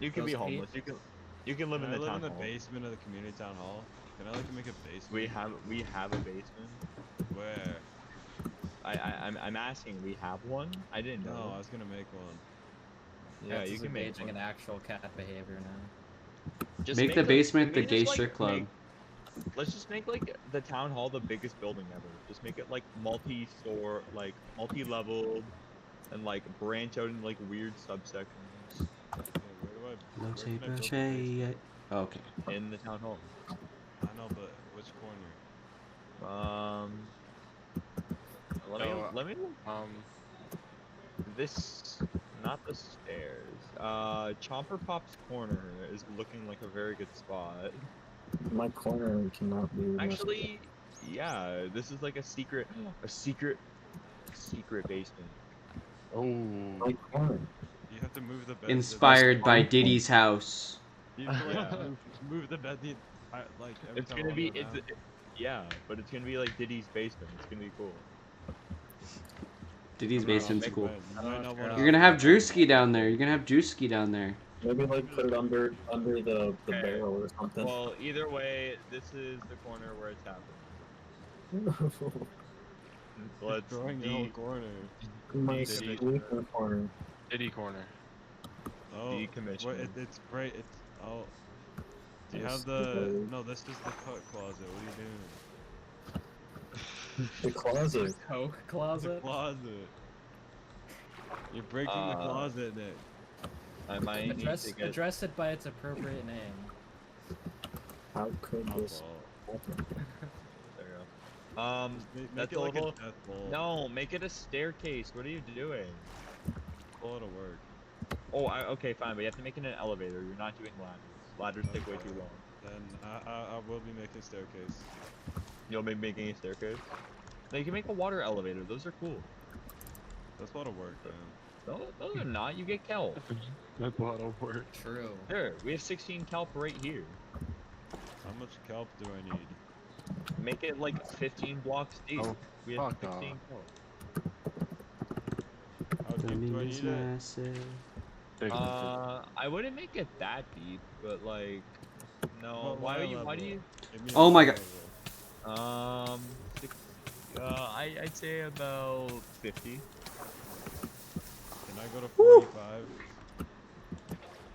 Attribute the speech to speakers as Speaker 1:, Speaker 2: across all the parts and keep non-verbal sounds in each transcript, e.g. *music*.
Speaker 1: You can be
Speaker 2: Those
Speaker 1: homeless. You can you can live
Speaker 3: Can
Speaker 1: in
Speaker 3: I
Speaker 1: the
Speaker 3: live
Speaker 1: town
Speaker 3: in the
Speaker 1: hall.
Speaker 3: basement of the community town hall? Can I like make a basement?
Speaker 1: We have we have a basement.
Speaker 3: Where?
Speaker 1: I, I I'm I'm asking. We have one. I didn't know.
Speaker 3: No, I was gonna make one.
Speaker 1: Yeah,
Speaker 2: That's
Speaker 1: you
Speaker 2: just
Speaker 1: can make
Speaker 2: engaging
Speaker 1: one.
Speaker 2: in actual cat behavior now.
Speaker 1: Just
Speaker 4: make, the
Speaker 1: a-
Speaker 4: basement
Speaker 1: we
Speaker 4: the
Speaker 1: just,
Speaker 4: gay
Speaker 1: like,
Speaker 4: strip club.
Speaker 1: make- let's just make like the town hall the biggest building ever. Just make it like multi-store, like multi-leveled, and like branch out in like weird subsections
Speaker 3: Okay, where do I?
Speaker 4: No
Speaker 3: where can I
Speaker 4: tape,
Speaker 3: build a
Speaker 4: no
Speaker 3: basement?
Speaker 4: shade. Oh, Okay.
Speaker 1: in the town hall.
Speaker 3: I know, but which corner?
Speaker 1: Um, let me
Speaker 5: No, uh,
Speaker 1: let me look
Speaker 5: Um,
Speaker 1: this not the stairs. Uh, Chomper Pop's corner is looking like a very good spot.
Speaker 6: My corner cannot be. messed
Speaker 1: Actually, yeah, this is like a secret, a secret, secret basement.
Speaker 6: with.
Speaker 1: Oh.
Speaker 6: my corner.
Speaker 3: You have to move the bed. to the-
Speaker 4: Inspired by Diddy's house.
Speaker 3: *laughs* You have to, like,
Speaker 1: Yeah.
Speaker 3: move, move the bed the entire like. Every
Speaker 1: it's
Speaker 3: time
Speaker 1: gonna
Speaker 3: I
Speaker 1: be
Speaker 3: walk
Speaker 1: it's
Speaker 3: around.
Speaker 1: it- yeah, but it's gonna be like Diddy's basement. It's gonna be cool.
Speaker 4: Diddy's
Speaker 3: I'm not
Speaker 4: basement's
Speaker 3: big
Speaker 4: cool.
Speaker 3: bed.
Speaker 6: I
Speaker 3: You
Speaker 6: don't
Speaker 3: might not
Speaker 6: care.
Speaker 3: wanna-
Speaker 4: You're gonna have Drewski down there. You're gonna have Drewski down there.
Speaker 6: Maybe like put it under under the, the
Speaker 1: Okay.
Speaker 6: barrel or something.
Speaker 1: Well, either way, this is the corner where it's happening.
Speaker 3: You're
Speaker 1: Let's
Speaker 3: Drawing the whole
Speaker 1: de-
Speaker 3: corner.
Speaker 6: my
Speaker 1: Did
Speaker 3: he-
Speaker 6: sleeping corner.
Speaker 5: Diddy corner.
Speaker 3: Oh,
Speaker 1: decommission.
Speaker 3: what, it, it's great. It's oh. Do you
Speaker 6: Yes,
Speaker 3: have the?
Speaker 6: okay.
Speaker 3: No, this is the coat closet. What are you doing?
Speaker 6: The closet.
Speaker 2: Coke
Speaker 3: The
Speaker 2: closet.
Speaker 3: closet. You're breaking the
Speaker 1: Uh,
Speaker 3: closet, Nick.
Speaker 1: I might need
Speaker 2: Address
Speaker 1: to get
Speaker 2: address it by its appropriate name.
Speaker 6: How could
Speaker 3: My
Speaker 6: this
Speaker 3: fault.
Speaker 6: happen?
Speaker 1: there we go. Um,
Speaker 3: Just ma- Make
Speaker 1: that's
Speaker 3: it like
Speaker 1: all-
Speaker 3: a death bowl.
Speaker 1: no, make it a staircase. What are you doing?
Speaker 3: Call it a work.
Speaker 1: Oh, I, okay, fine, but you have to make it an elevator. You're not doing ladders. Ladders take way too long.
Speaker 3: Then I, I, I will be making staircase.
Speaker 1: You'll be making a staircase. No, you can make a water elevator. Those are cool.
Speaker 3: That's a lot of work, man.
Speaker 1: No, no, they're not. You get kelp.
Speaker 5: That's a lot of work.
Speaker 2: True.
Speaker 1: Here, we have 16 kelp right here.
Speaker 3: How much kelp do I need?
Speaker 1: Make it like 15 blocks deep.
Speaker 5: Oh,
Speaker 1: we have
Speaker 5: fuck off.
Speaker 1: 16 kelp.
Speaker 3: How deep do I need it?
Speaker 5: Big
Speaker 1: Uh, I wouldn't make it that deep, but like, no.
Speaker 3: What
Speaker 1: Why
Speaker 3: water
Speaker 1: are you? Why do
Speaker 3: level?
Speaker 1: you?
Speaker 3: Give me a
Speaker 4: Oh my
Speaker 3: water
Speaker 4: god.
Speaker 3: level.
Speaker 1: Um, six, uh, I I'd say about 50.
Speaker 3: Can I go to
Speaker 4: Woo.
Speaker 3: 45?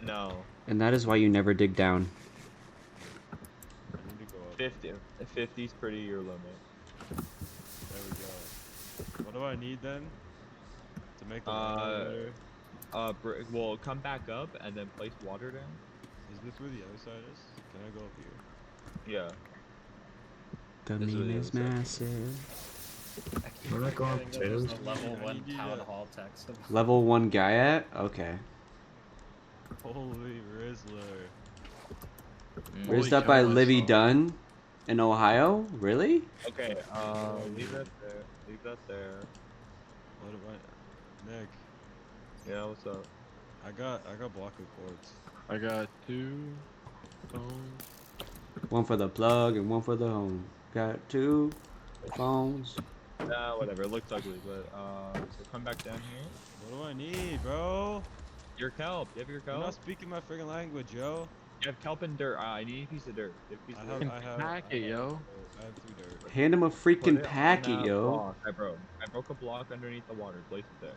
Speaker 1: No,
Speaker 4: And that is why you never dig down.
Speaker 3: I need to go up.
Speaker 1: 50. 50's pretty your limit.
Speaker 3: There we go. What do I need then? To make the
Speaker 1: Uh,
Speaker 3: elevator?
Speaker 1: Uh, br- well, come back up and then place water down.
Speaker 3: Is this where the other side is? Can I go up here?
Speaker 1: Yeah.
Speaker 4: The
Speaker 1: This is
Speaker 4: meme
Speaker 1: what
Speaker 4: is
Speaker 1: it is.
Speaker 4: massive.
Speaker 2: I keep
Speaker 6: We're not going
Speaker 2: forgetting that there's
Speaker 6: upstairs.
Speaker 2: a level
Speaker 3: I
Speaker 2: one
Speaker 3: need you
Speaker 2: town
Speaker 3: to-
Speaker 2: hall text. about-
Speaker 4: Level one guy at? Okay.
Speaker 3: Holy Rizzler.
Speaker 2: Mm.
Speaker 4: Raised
Speaker 3: Holy
Speaker 4: up by
Speaker 3: cow, I
Speaker 4: Livy
Speaker 3: saw.
Speaker 4: Dunn in Ohio? Really?
Speaker 1: Okay. Uh, leave
Speaker 3: yeah.
Speaker 1: that there. Leave that there.
Speaker 3: What do I... Nick,
Speaker 1: Yeah. What's up?
Speaker 3: I got I got block of quartz.
Speaker 5: I got two. Phone.
Speaker 4: One for the plug and one for the home. Got two phones.
Speaker 1: Nah, whatever. It looks ugly, but uh, so come back down here.
Speaker 3: What do I need, bro?
Speaker 1: Your kelp. You have your
Speaker 3: You're
Speaker 1: kelp.
Speaker 3: not speaking my friggin' language, yo.
Speaker 1: You have kelp and dirt. Uh, I need a piece of dirt. You have a piece
Speaker 3: I
Speaker 1: of
Speaker 3: have,
Speaker 1: dirt.
Speaker 3: I have,
Speaker 5: Pack
Speaker 3: I
Speaker 5: it,
Speaker 3: have
Speaker 5: yo.
Speaker 3: dirt. I have three dirt.
Speaker 4: Hand him a
Speaker 1: Put
Speaker 4: freaking
Speaker 1: it on
Speaker 4: packet,
Speaker 1: that
Speaker 4: yo.
Speaker 1: block I broke. I broke a block underneath the water. Place it there.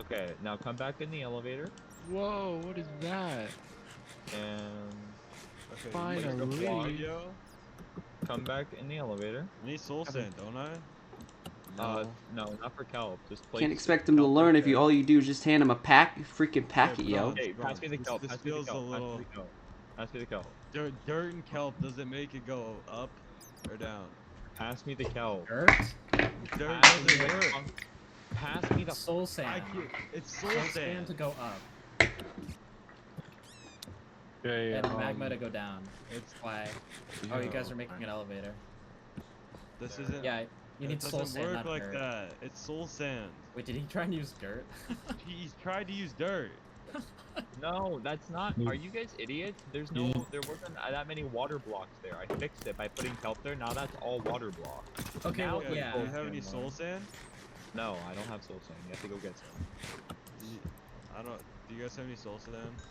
Speaker 1: Okay, now come back in the elevator
Speaker 5: Whoa, what is that?
Speaker 1: and
Speaker 3: Okay,
Speaker 5: Fine,
Speaker 3: you need
Speaker 5: I'll
Speaker 3: a block,
Speaker 5: leave.
Speaker 3: yo.
Speaker 1: come back in the elevator.
Speaker 3: I need soul
Speaker 5: Have a-
Speaker 3: sand, don't I?
Speaker 1: Uh, no, not for kelp. Just place.
Speaker 4: Can't expect him to learn if you all you do is just hand him a pack freaking packet,
Speaker 3: but
Speaker 4: yo.
Speaker 3: not-
Speaker 1: Hey, pass me the
Speaker 3: This-
Speaker 1: kelp.
Speaker 3: this
Speaker 1: Pass me the
Speaker 3: feels a
Speaker 1: kelp. Pass me
Speaker 3: little-
Speaker 1: the kelp. Pass me the kelp.
Speaker 3: Dirt, dirt and kelp, does it make it go up or down?
Speaker 1: Pass me the kelp.
Speaker 2: Dirt?
Speaker 3: Dirt
Speaker 1: Pass me
Speaker 3: doesn't
Speaker 1: the
Speaker 3: work.
Speaker 1: fun- Pass me the.
Speaker 2: Soul sand.
Speaker 3: I can't. It's soul
Speaker 2: Soul sand
Speaker 3: sand.
Speaker 2: to go up
Speaker 5: Okay,
Speaker 2: and
Speaker 5: um,
Speaker 2: magma to go down.
Speaker 3: It's
Speaker 2: Why? Oh, you guys are making an elevator.
Speaker 3: this
Speaker 1: there.
Speaker 3: isn't.
Speaker 2: Yeah, you
Speaker 3: it
Speaker 2: need soul
Speaker 3: doesn't
Speaker 2: sand,
Speaker 3: work
Speaker 2: not
Speaker 3: like
Speaker 2: dirt.
Speaker 3: that. It's soul sand.
Speaker 2: Wait, did he try and use dirt?
Speaker 3: He's tried to use dirt.
Speaker 1: No, that's not. Are you guys idiots? There's no. There wasn't uh, that many water blocks there. I fixed it by putting kelp there. Now that's all water blocks.
Speaker 2: *laughs* Okay,
Speaker 1: Now
Speaker 2: well,
Speaker 1: it's
Speaker 2: yeah.
Speaker 3: Do you
Speaker 1: soul
Speaker 3: have
Speaker 1: sand
Speaker 3: any soul
Speaker 1: one.
Speaker 3: sand?
Speaker 1: No, I don't have soul sand. You have to go get some.
Speaker 3: Do you- I don't. Do you guys have any soul sand?